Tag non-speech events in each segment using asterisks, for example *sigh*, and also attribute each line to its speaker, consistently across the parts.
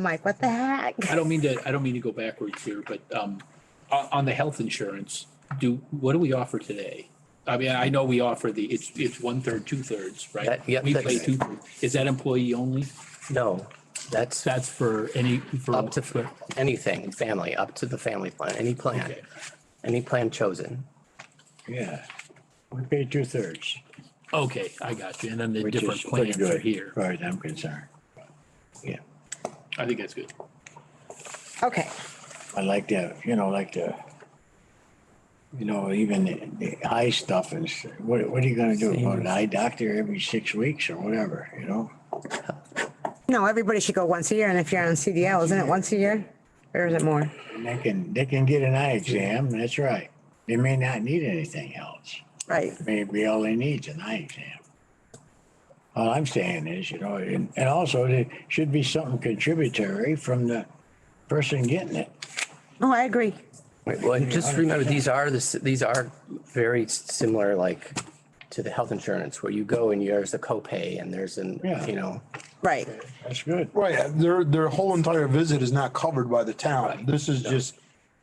Speaker 1: I'm like, what the heck? *laughs*
Speaker 2: I don't mean to, I don't mean to go backwards here, but um, on, on the health insurance, do, what do we offer today? I mean, I know we offer the, it's, it's one third, two thirds, right?
Speaker 3: That- yeah,
Speaker 2: We pay
Speaker 3: that's-
Speaker 2: two, is that employee only?
Speaker 3: No, that's
Speaker 2: That's for any, for.
Speaker 3: up to anything, family, up to the family plan, any plan,
Speaker 2: Okay.
Speaker 3: any plan chosen.
Speaker 4: Yeah, we pay two thirds,
Speaker 2: Okay, I got you. And then the
Speaker 4: which
Speaker 2: different
Speaker 4: is pretty
Speaker 2: plans
Speaker 4: good,
Speaker 2: are
Speaker 4: as
Speaker 2: here.
Speaker 4: far as I'm concerned. Yeah,
Speaker 2: I think that's good.
Speaker 1: Okay,
Speaker 4: I like to, you know, like to, you know, even the the eye stuff is, what, what are you gonna do? Go to an eye doctor every six weeks or whatever, you know?
Speaker 1: no, everybody should go once a year, and if you're on CDL, isn't it once a year? Or is it more?
Speaker 4: And they can, they can get an eye exam, that's right. They may not need anything else.
Speaker 1: Right,
Speaker 4: maybe all they need is an eye exam. All I'm saying is, you know, and, and also there should be something contributory from the person getting it.
Speaker 1: oh, I agree,
Speaker 3: Right, Well, and just remember, these are the, s- these are very s- similar, like, to the health insurance, where you go and there's a copay and there's an,
Speaker 4: Yeah.
Speaker 3: you know,
Speaker 1: right,
Speaker 4: That's good.
Speaker 5: Right, uh, their, their whole entire visit is not covered by the town. This is just,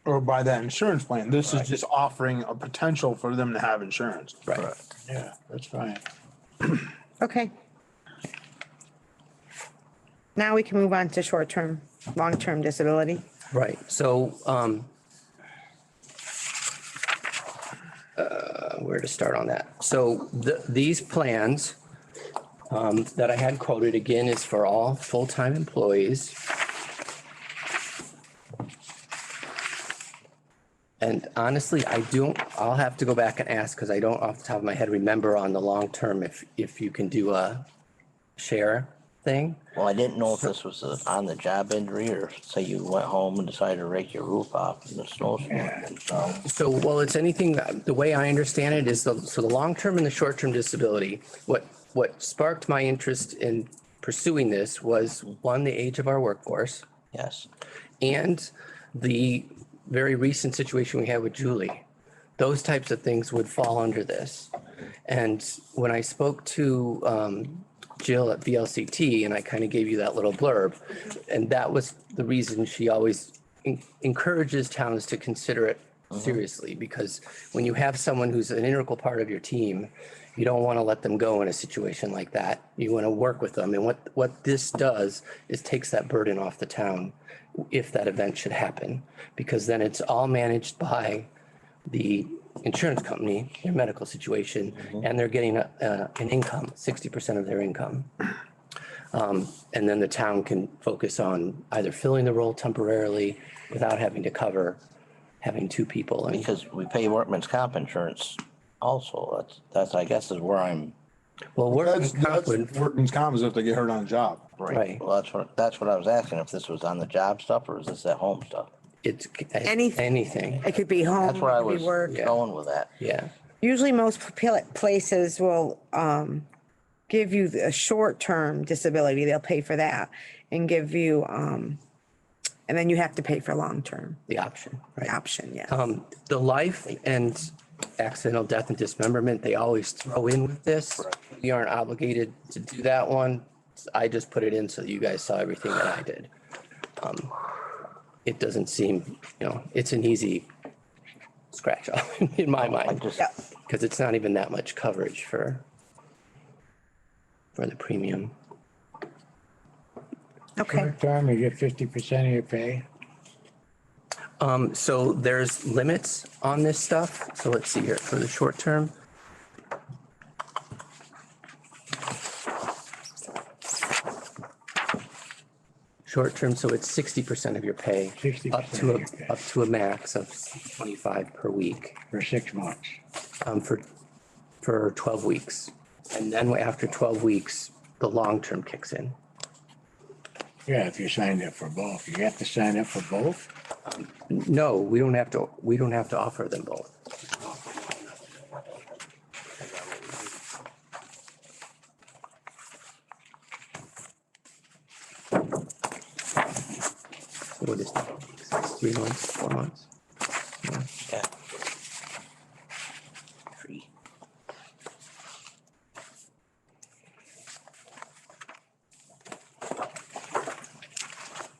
Speaker 5: or by that insurance plan. This is just offering a potential for them to have insurance.
Speaker 3: right.
Speaker 4: Yeah, that's fine.
Speaker 1: okay. Now we can move on to short-term, long-term disability.
Speaker 3: Right, so, um, uh, where to start on that? So the, these plans, um, that I had quoted again is for all full-time employees. And honestly, I don't, I'll have to go back and ask, cause I don't off the top of my head remember on the long term if, if you can do a share thing.
Speaker 6: Well, I didn't know if this was a- on the job injury or say you went home and decided to rake your roof off in the snowstorm. So
Speaker 3: So, well, it's anything, that- the way I understand it is the, so the long-term and the short-term disability, what, what sparked my interest in pursuing this was one, the age of our workforce
Speaker 6: Yes,
Speaker 3: and the very recent situation we had with Julie. Those types of things would fall under this. And when I spoke to um, Jill at VLCT, and I kind of gave you that little blurb, and that was the reason she always en- encourages towns to consider it seriously, because when you have someone who's an integral part of your team, you don't want to let them go in a situation like that. You want to work with them. And what, what this does is takes that burden off the town if that event should happen, because then it's all managed by the insurance company, their medical situation,
Speaker 5: Mm-hmm.
Speaker 3: and they're getting a, uh, an income, sixty percent of their income. Um, and then the town can focus on either filling the role temporarily without having to cover having two people. And
Speaker 6: because we pay workman's comp insurance also. That's, that's, I guess is where I'm.
Speaker 3: well, workman's
Speaker 5: That's,
Speaker 3: comp
Speaker 5: that's
Speaker 3: would,
Speaker 5: workman's comp is if they get hurt on a job.
Speaker 3: Right.
Speaker 6: Well, that's what, that's what I was asking, if this was on the job stuff or is this at home stuff?
Speaker 3: it's
Speaker 1: Anything.
Speaker 3: anything.
Speaker 1: It could be home,
Speaker 6: That's where I
Speaker 1: it Mm-hmm. could
Speaker 6: was
Speaker 1: be work.
Speaker 6: going with that.
Speaker 3: Yeah.
Speaker 1: Usually most pla- places will, um, give you a short-term disability, they'll pay for that and give you, um, and then you have to pay for long-term
Speaker 3: The option. Right.
Speaker 1: option, yeah.
Speaker 6: Uh-huh.
Speaker 3: Um, the life and accidental death and dismemberment, they always throw in with this. We aren't obligated to do that one. I just put it in so you guys saw everything that I did. Um, It doesn't seem, you know, it's an easy scratch *laughs* off in my
Speaker 6: I
Speaker 3: mind,
Speaker 6: just,
Speaker 1: Yeah,
Speaker 3: because it's not even that much coverage for for the premium.
Speaker 1: okay,
Speaker 4: Term, you get fifty percent of your pay.
Speaker 3: Um, so there's limits on this stuff. So let's see here for the short term. Short term, so it's sixty percent of your pay.
Speaker 4: 60%
Speaker 3: Up to
Speaker 4: of your pay.
Speaker 3: a, up to a max of twenty-five per week,
Speaker 4: For six months.
Speaker 3: um, for, for twelve weeks. And then after twelve weeks, the long term kicks in.
Speaker 4: Yeah, if you signed up for both, you have to sign up for both.
Speaker 3: No, we don't have to, we don't have to offer them both. What is that? Three months, four months?